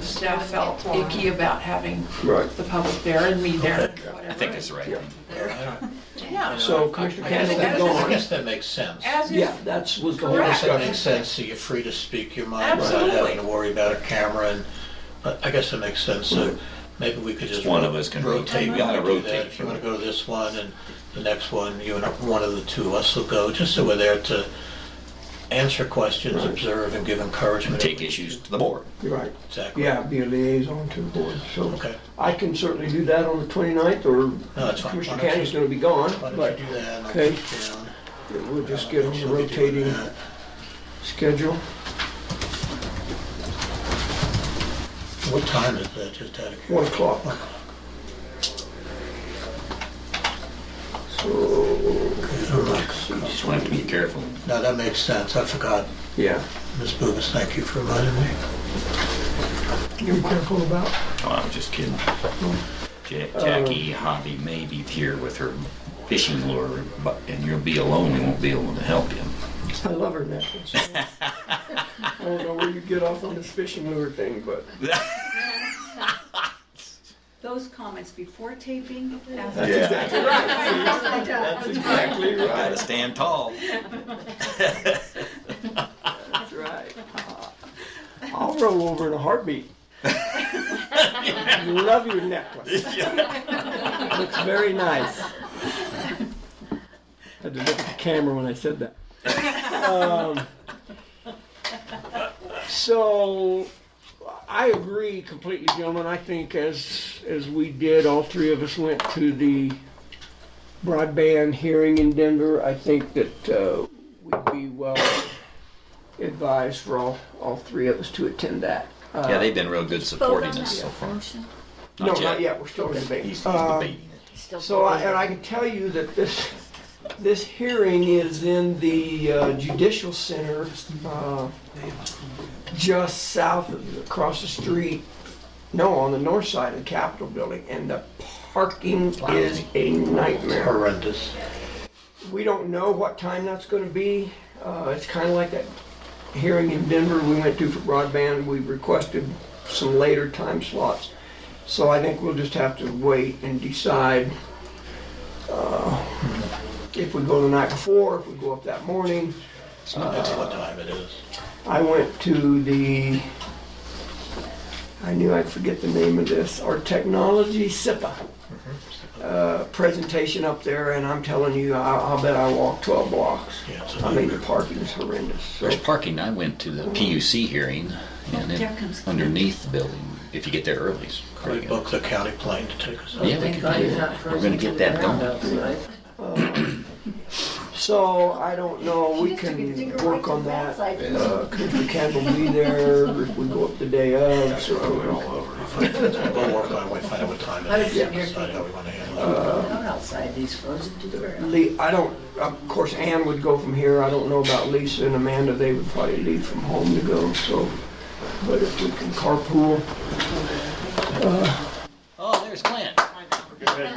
staff felt icky about having Right. the public there and me there, and Okay. whatever. I think that's right. Yeah. So Commissioner I guess Kennedy, that- Cannon, go I on. guess that makes sense. As is, Yeah, that's, was the All whole of a Correct. sudden it discussion. makes sense, so you're free to speak your mind without Absolutely. having to worry about a camera and, but I guess that makes sense, so maybe we could just. One of us can rotate. Rotate, We we gotta can do rotate. that, if you wanna go to this one and the next one, you and one of the two of us will go, just so we're there to answer questions, observe and give encouragement. Take issues to the board. You're Right. Exactly. Yeah, be a liaison to the board, so. Okay. I can certainly do that on the 29th, No, or that's fine. Commissioner Why don't you- Cannon's gonna be gone, Why but don't you do that and I'll Okay. keep down. we'll just get on the She'll be doing rotating that. schedule. What time is that, just out of One curiosity? o'clock. So, Just want to be careful. No, that makes sense, I forgot. yeah. Ms. Boomis, thank you for reminding me. You be careful about. Oh, I'm just kidding. Ja- Jackie Hobby may be here with her fishing lure, but, and you'll be alone. We won't be able to help you. I love her necklace. I don't know where you get off on this fishing lure thing, but Those comments before taping, after. that's Yeah. exactly right. That's That's exactly Gotta right. stand tall. That's right. I'll roll over in a heartbeat. Love your necklace. Looks very nice. Had to look at the camera when I said that. Um, So, I agree completely, gentlemen. I think as, as we did, all three of us went to the broadband hearing in Denver. I think that uh, we'd be well advised for all, all three of us to attend that. Uh, Yeah, they've been real good supporting us so far. No, not yet. We're still in debate. He's he's Uh, debating it. So, I- and I can tell you that this, this hearing is in the uh, Judicial Center, uh, just south of, across the street, no, on the north side of the Capitol Building, and the parking is a nightmare. Horrendous. We don't know what time that's gonna be. Uh, It's kind of like that hearing in Denver we went to for broadband. We requested some later time slots. So I think we'll just have to wait and decide uh, if we go the night before, if we go up that morning. It's not matter what time it is. I went to the, I knew I'd forget the name of this, our technology SIPA uh, presentation up there, and I'm telling you, I- I'll bet I walked 12 blocks. Yeah, it's a I mean, the nightmare. parking is horrendous. so- There's parking. I went to the PUC hearing and There it, comes- underneath the building, if you get there early. it's We pretty good. booked the county plane to take us out. Yeah, we could do that. We're gonna get that done. So I don't know, we can work on that. Uh, Commissioner Ken will be there, if we go up the day of, so. We'll work on, it, we'll find out what time it is, Yeah. decide how we want to handle it. Not outside, these frozen to the ground. Lee, I don't, of course, Ann would go from here, I don't know about Lisa and Amanda, they would probably leave from home to go, so. But if we can carpool, Oh, there's Clint.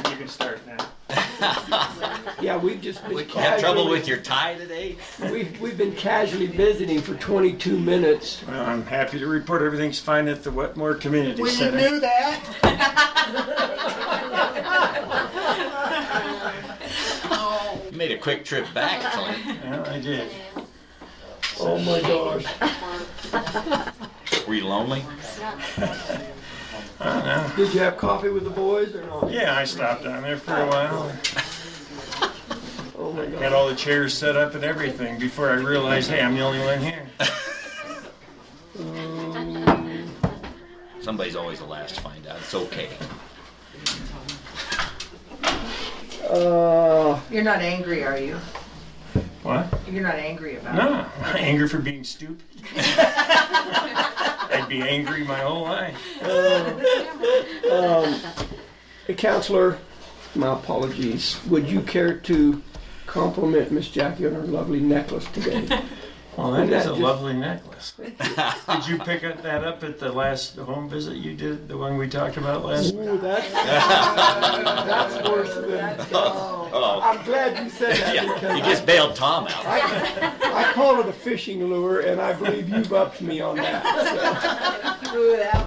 You can start now. yeah, we've just been You have trouble casually, with your tie today? we've, we've been casually visiting for twenty-two minutes. Well, I'm happy to report everything's fine at the Wetmore Community Center. You made a quick trip back, Clint. Well, I did. Oh my gosh. Were you lonely? Did you have coffee with the boys or not? Yeah, I stopped down there for a while. Oh my Got gosh. all the chairs set up and everything before I realized, hey, I'm the only one here. Somebody's always the last to find out. It's okay. Uh, You're not angry, are you? What? You're not angry about it? No, anger for being stupid. I'd be angry my whole life. Hey, Counselor, my apologies. Would you care to compliment Miss Jackie on her lovely necklace today? Well, that is That a just- lovely necklace. Did you pick up that up at the last home visit you did, the one we talked about last? Ooh, that's, that's worse than. Oh, I'm glad you said that yeah. You because just bailed Tom out. I call it a fishing lure and I believe you've upped me on that. so. Threw it out.